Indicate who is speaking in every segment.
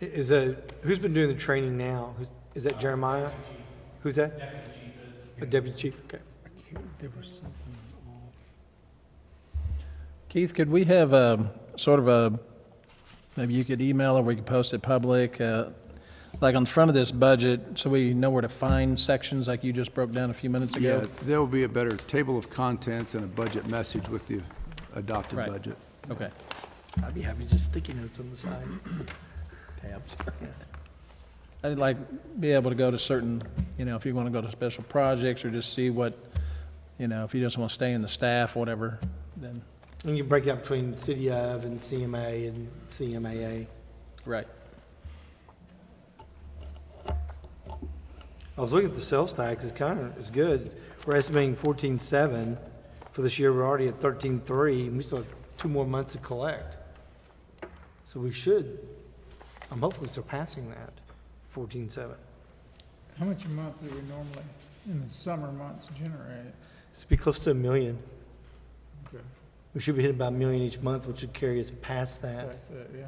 Speaker 1: Is a, who's been doing the training now? Who's- Is that Jeremiah? Who's that? Deputy chief is. A deputy chief, okay.
Speaker 2: There was something off.
Speaker 3: Keith, could we have um sort of a, maybe you could email or we could post it public, uh, like on the front of this budget, so we know where to find sections like you just broke down a few minutes ago?
Speaker 2: Yeah, there will be a better table of contents and a budget message with the adopted
Speaker 3: Right.
Speaker 2: budget.
Speaker 3: Okay.
Speaker 4: I'd be happy to just sticky notes on the side.
Speaker 3: Tabs. I'd like, be able to go to certain, you know, if you want to go to special projects or just see what, you know, if you just want to stay in the staff, whatever, then,
Speaker 1: And you break it up between City of and CMA and CMAA.
Speaker 3: right.
Speaker 1: I was looking at the sales tax, it's kind of, it's good. We're estimating fourteen-seven for this year, we're already at thirteen-three, and we still have two more months to collect. So we should, I'm hopefully surpassing that, fourteen-seven.
Speaker 5: How much a month do we normally, in the summer months, generate?
Speaker 1: It's be close to a million.
Speaker 5: Okay.
Speaker 1: We should be hitting about a million each month, which would carry us past that.
Speaker 5: That's it, yeah.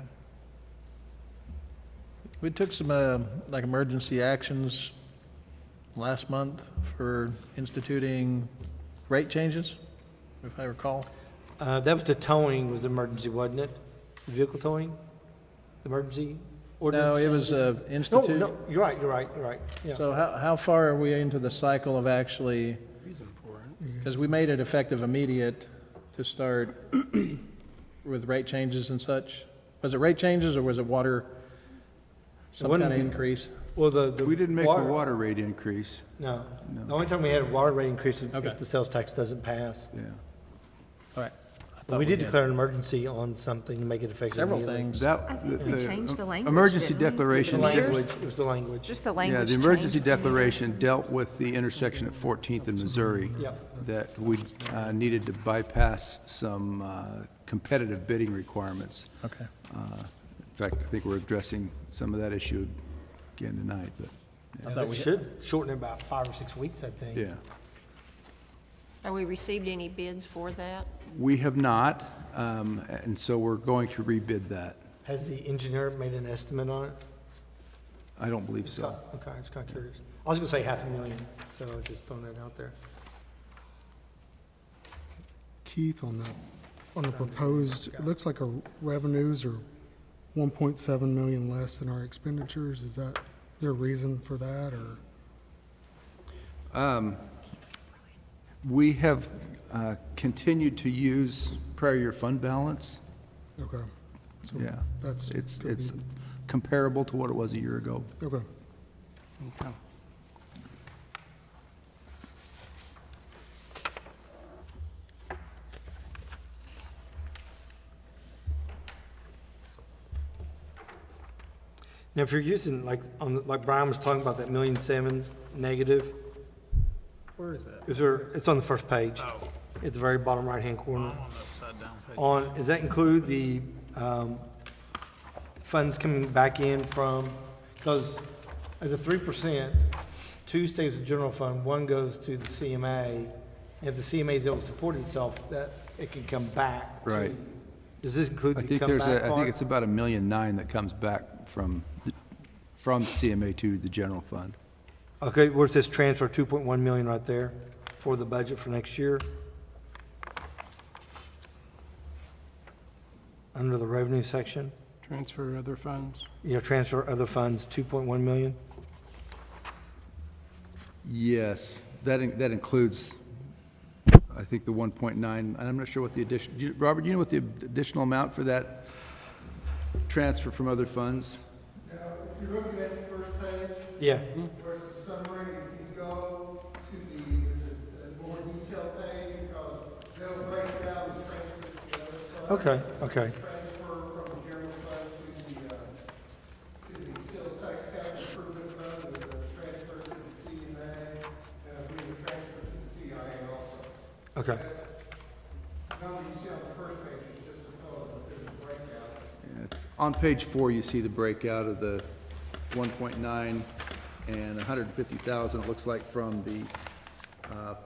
Speaker 3: We took some, uh, like, emergency actions last month for instituting rate changes, if I recall.
Speaker 1: Uh, that was the towing was emergency, wasn't it? Vehicle towing? Emergency ordinance?
Speaker 3: No, it was uh,
Speaker 1: No,
Speaker 3: institute.
Speaker 1: no, you're right, you're right, you're right, yeah.
Speaker 3: So how, how far are we into the cycle of actually,
Speaker 4: Reason for it.
Speaker 3: because we made it effective immediate to start with rate changes and such? Was it rate changes or was it water, some
Speaker 1: wouldn't
Speaker 3: kind of
Speaker 1: be-
Speaker 3: increase?
Speaker 1: Well, the, the.
Speaker 2: We didn't make the water rate increase,
Speaker 1: No. The
Speaker 2: No.
Speaker 1: only time we had a water rate increase was
Speaker 3: Okay.
Speaker 1: if the sales tax doesn't pass.
Speaker 2: yeah.
Speaker 3: All right. I
Speaker 1: But
Speaker 3: thought
Speaker 1: we did
Speaker 3: had
Speaker 1: declare an emergency on something, to make it effective
Speaker 3: Several
Speaker 1: immediately.
Speaker 3: things.
Speaker 2: That-
Speaker 6: I think we
Speaker 2: the-
Speaker 6: changed the language,
Speaker 2: Emergency
Speaker 6: didn't we?
Speaker 1: The
Speaker 2: declaration.
Speaker 6: Years?
Speaker 1: language, it was the language.
Speaker 6: Just the
Speaker 2: Yeah,
Speaker 6: language
Speaker 2: the
Speaker 6: change.
Speaker 2: emergency declaration dealt with the intersection at 14th and Missouri.
Speaker 1: Yep.
Speaker 2: That we uh, needed to bypass some uh, competitive bidding requirements.
Speaker 3: Okay.
Speaker 2: Uh, In fact, I think we're addressing some of that issue again tonight, but,
Speaker 3: I
Speaker 1: Yeah,
Speaker 3: thought
Speaker 1: It
Speaker 3: we,
Speaker 1: should shorten it about five or six weeks, I think.
Speaker 2: yeah.
Speaker 7: Have we received any bids for that?
Speaker 2: We have not, um, and so we're going to rebid that.
Speaker 1: Has the engineer made an estimate on it?
Speaker 2: I don't believe so.
Speaker 1: Okay, I was kind of curious. I was gonna say half a million, so I just throwing that out there.
Speaker 8: Keith, on the, on the proposed, it looks like our revenues are 1.7 million less than our expenditures. Is that, is there a reason for that, or?
Speaker 2: Um, We have uh, continued to use prior year fund balance.
Speaker 8: Okay, so
Speaker 2: Yeah.
Speaker 8: that's.
Speaker 2: It's,
Speaker 8: could be-
Speaker 2: it's comparable to what it was a year ago.
Speaker 8: Okay.
Speaker 1: Now, if you're using, like, on, the- like Brian was talking about that million seven negative,
Speaker 5: Where is that? Oh.
Speaker 1: is there, it's on the first page. At the very bottom right-hand corner.
Speaker 5: On the upside down page.
Speaker 1: On, does that include the, um, funds coming back in from, because at the three percent, two stays with general fund, one goes to the CMA. If the CMA is able to support itself, that, it can come back. to-
Speaker 2: Right.
Speaker 1: Does this include
Speaker 2: I
Speaker 1: the
Speaker 2: think there's,
Speaker 1: comeback
Speaker 2: a I think
Speaker 1: part?
Speaker 2: it's about a million nine that comes back from, the- from CMA to the general fund.
Speaker 1: Okay, where's this transfer, two point one million right there for the budget for next year? Under the revenue section,
Speaker 9: Transfer other funds.
Speaker 1: you know, transfer other funds, two point one million?
Speaker 2: Yes, that, in- that includes, I think, the 1.9, and I'm not sure what the addition, do you- Robert, do you know what the additional amount for that transfer from other funds?
Speaker 10: If you're looking at the first page,
Speaker 1: Yeah.
Speaker 10: where's the summary, if you go to the, the- the more detailed page, because they'll break down the transfers to the other fund,
Speaker 1: Okay, okay.
Speaker 10: transfer from the general fund to the, uh, to the sales tax capital improvement fund, the the transfer to the CMA, and I believe the transfer to the CIA also.
Speaker 1: Okay,
Speaker 10: Number you see on the first page is just a total, but there's a breakout.
Speaker 2: Yeah, it's- On page four, you see the breakout of the 1.9 and 150,000, it looks like, from the uh,